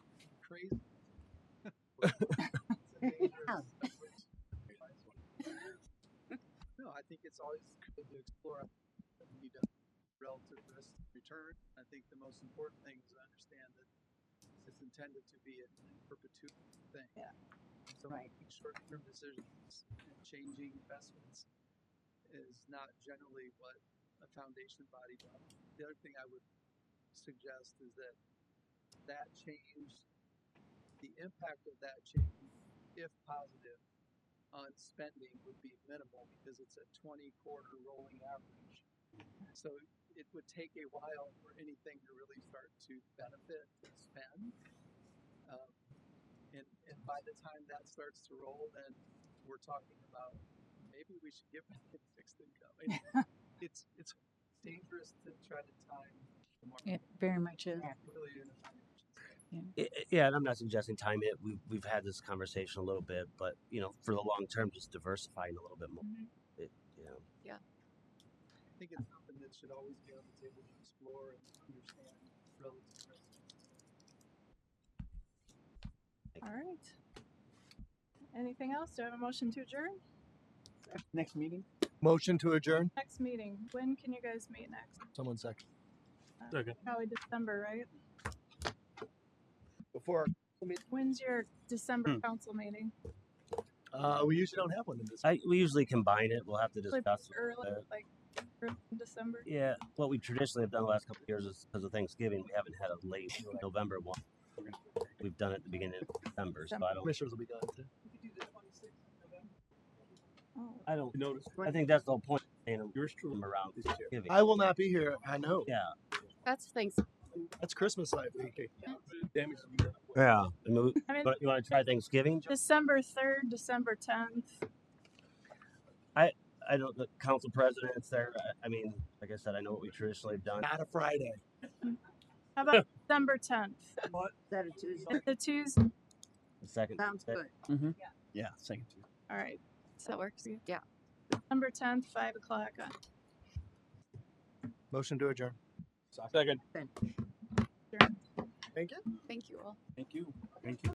crazy. no, I think it's always good to explore you know, relative risk and return. I think the most important thing is to understand that it's intended to be an in perpetuity thing. Yeah. So Right. making short-term decisions and changing investments is not generally what a foundation body does. The other thing I would suggest is that that change, the impact of that change, if positive, on spending would be minimal because it's a twenty quarter rolling average. So it would take a while for anything to really start to benefit and spend. Um, and, and by the time that starts to roll, then we're talking about maybe we should get back in fixed income. And it's it's dangerous to try to time the market. It very much is. Really in a financial sense. I- I- Yeah, and I'm not suggesting time it. We've we've had this conversation a little bit, but you know, for the long term, just diversifying a little bit more. Mm-hmm. It, you know, I think it's something that should always be on the table to explore and understand relative risk. All right. Anything else? Do I have a motion to adjourn? Next meeting? Motion to adjourn? Next meeting, when can you guys meet next? Uh, Someone second. Probably December, right? Before, When's your December council meeting? uh, we usually don't have one in this. I, we usually combine it. We'll have to Like discuss. Early, uh, like, early in December? Yeah, what we traditionally have done the last couple of years is because of Thanksgiving, we haven't had a late November one. We've done it at the beginning of December, so I don't. Commissioners will be gone too. We could do the twenty sixth of November. Oh, I don't. Notice I think that's the whole point. Saying yours truly them around is here. Thanksgiving. I will not be here. I know. Yeah, That's thanks. That's Christmas life week. Damage to you. yeah. I mean, I mean, but you want to try Thanksgiving? December third, December tenth. I don't. The council president's there. I, I mean, like I said, I know what we traditionally have done. Not a Friday. How about December tenth? Saturday, Tuesday. It's a Tuesday. The second. Sounds that- good. Yeah, second. All right, That works. Yeah. December tenth, five o'clock on Motion to adjourn. Second. Then. Thank you. Thank you all. Thank you.